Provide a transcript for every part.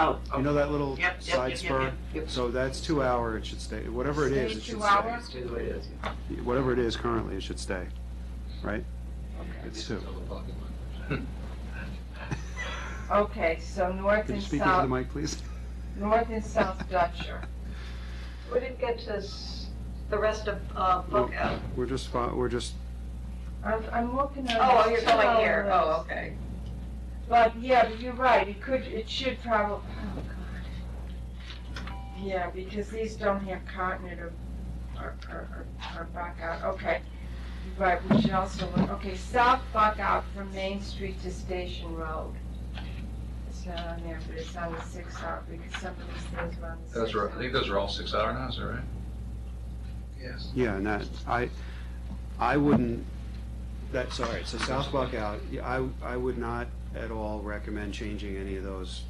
Oh, You know that little Yep, yep, side yep, yep, spur? yep, yep. So that's two hour, it should stay, whatever it is, it should Two stay. hours? Stay the way it is. yeah. Whatever it is currently, it should stay, right? It's two. Okay, so north Could you and speak into the south, mic, please? north and south Dutcher. We didn't get to s- the rest of uh, book out. We're just, fo- we're just, I'm, I'm looking at. Oh, this you're going two-hour here, oh, list. okay. But, yeah, but you're right, it could, it should probably, oh, God. Yeah, because these don't have continent or, or, or, or buck out, okay. You're Right, we should also look, okay, south buck out from Main Street to Station Road. It's not on there, but it's on the six hour, because some of these things were on the six hour. Those are, I think those are all six hour now, is that right? Yes. yeah, and that, I, I wouldn't, that's, all right, so South Buckout, yeah, I, I would not at all recommend changing any of those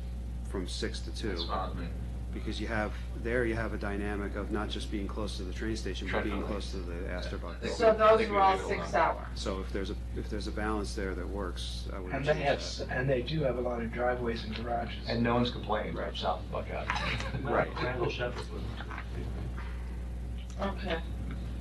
from six to two. That's fine, I mean, Because you have, there you have a dynamic of not just being close to the train station, but being Definitely. close to the Astor Buckout. So those think we were all leave it six alone. hour. So if there's a, if there's a balance there that works, I would And change they have, that. and they do have a lot of driveways and garages. And no one's complaining about South Buckout. Right. Michael Shepherd was. Okay.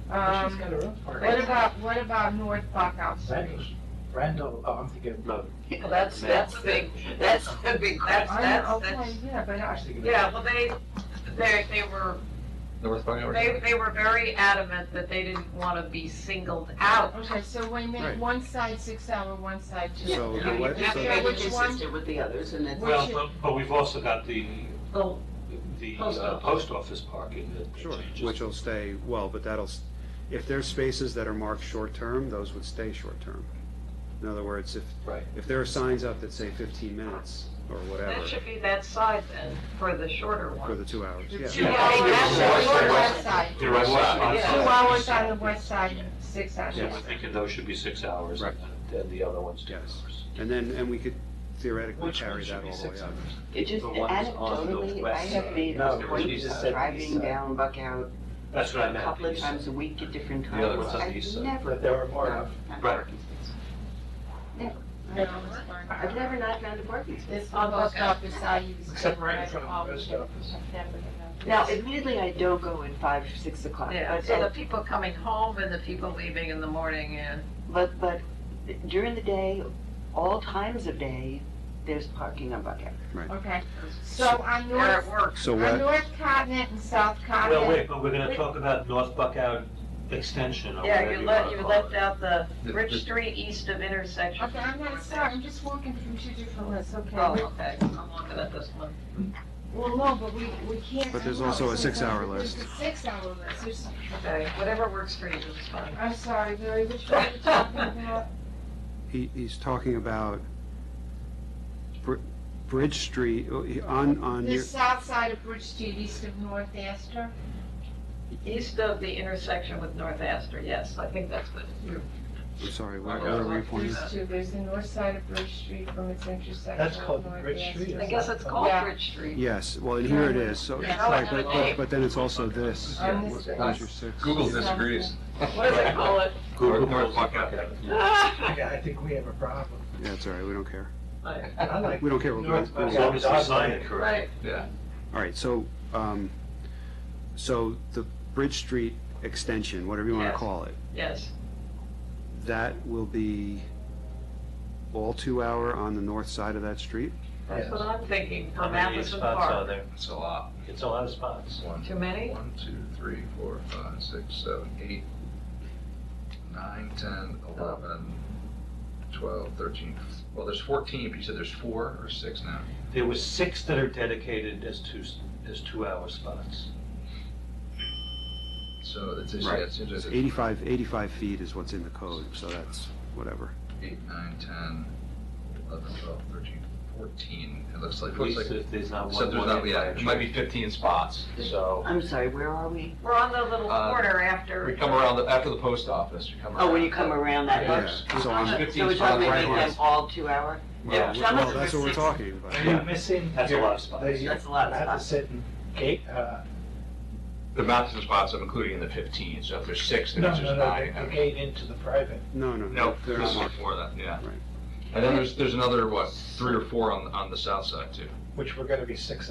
Well, She's Um, got her own what park. about, what about North Buckout Street? Randall, Randall, oh, I'm thinking of Road. Well, that's, that's the big, that's the big I question. know, That's, okay, that's, yeah, but I I, was thinking of- yeah, well, they, they, they were, North Buckout. they, they were very adamant that they didn't want to be singled out. okay, so we Right. make one side six hour, one side two. So hour. the You what- have so- to know which one, with the others, and it's. Well, but, but we've also got the, Well, the Post uh, office. post office parking that. that Sure, changes. which will stay, well, but that'll, s- if there's spaces that are marked short-term, those would stay short-term. In other words, if, Right. if there are signs up that say 15 minutes or whatever that should be that side then, for the shorter for one. the two hours, yeah. two Yeah. hours on the Yeah. west side, There was, two Yeah. hours on the west side, six hours. so we're thinking those should be six hours Right. and then the other ones two Yes. hours. And then, and we could theoretically Which carry one that should be all the way six up. hours? It just The ones on the anecdotally, I west have side. made No, a you point just of said east driving side. down Buckout That's what I a meant. couple of these- times a week at different The other times. one's on the east I've side. never. That they were part of. found a Right. parking space. No, it's fine. I've never not found a parking space. This on post office side, you was. Except right in front of the post office. Now, admittedly, I don't go at five, six o'clock, Yeah, but, uh, so the at- people coming home and the people leaving in the morning, yeah. but, but during the day, all times of day, there's parking on Buckout. Okay, so on They're at north, work. So on what, North Continent and South Continent. Well, wait, but we're gonna talk about North Buckout Extension or Yeah, whatever you you left, wanna you call left it. out the The- Rich the- Street east of intersection. Okay, I'm not, sorry, I'm just walking from two different lists, okay. Oh, okay, I'm looking at this one. Well, no, but we, we can't. But there's I know, also a sometimes six-hour list. there's a six-hour list, there's, Okay, whatever works for you is fine. I'm sorry, Larry, which one are you talking about? he, he's talking about Br- Bridge Street, oh, he- on, on, The your- south side of Bridge Street, east of North Astor? East of the intersection with North Astor, yes, I think that's what. I'm sorry, where Buckout. where were you pointing? There's two, there's the north side of Bridge Street from its intersection. That's with called North Bridge Astor. Street, I guess it's called Yeah. Bridge Street. Yes, well, and here it is, so, Yeah. right, but, but- but then it's also this. On this That was your six. Google disagrees. What do they call it? North- Google North calls it Buckout. Yeah, I think we have a problem. Yeah, it's all right, we don't care. I like. We don't care what North Google- As long as we sign it correctly. Right, All right, so, um, so the Bridge Street extension, whatever you want to Yes. call it, yes, that will be all two-hour on the north side of that street? that's what I'm thinking, How from many Matheson spots are Park. there? That's a lot. It's a lot of spots. One, Too many? One, two, three, four, five, six, seven, eight, nine, ten, eleven, twelve, thirteen. Well, there's fourteen, but you said there's four or six now. There were six that are dedicated as two, as two-hour spots. So it's, it's- Right. yeah, it seems like It's it's 85, 85 feet is what's in the code, so that's whatever. eight, nine, ten, eleven, twelve, thirteen, fourteen. It looks like, At looks least like, if there's not one. except there's one not, in yeah, fire it might be truck. fifteen spots. So. I'm sorry, where are we? We're on the little Uh, corner after. We come around, the- after the post office, we come around. Oh, when you come around that Yeah. much? So I'm, So we're talking about making them all two hour? well, Yeah. well, that's what we're talking about. Are you missing? That's a your- lot of spots. the- That's a lot of I have to spots. sit and gate, uh, The Matheson spots I'm including in the fifteen, so if there's six, then no, it's no, just no, nine. the- the gate into the private. No, no, No, no. there's there's- one more that, yeah. Right. And then there's, there's another, what, three or four on, on the south side too. which were gonna be six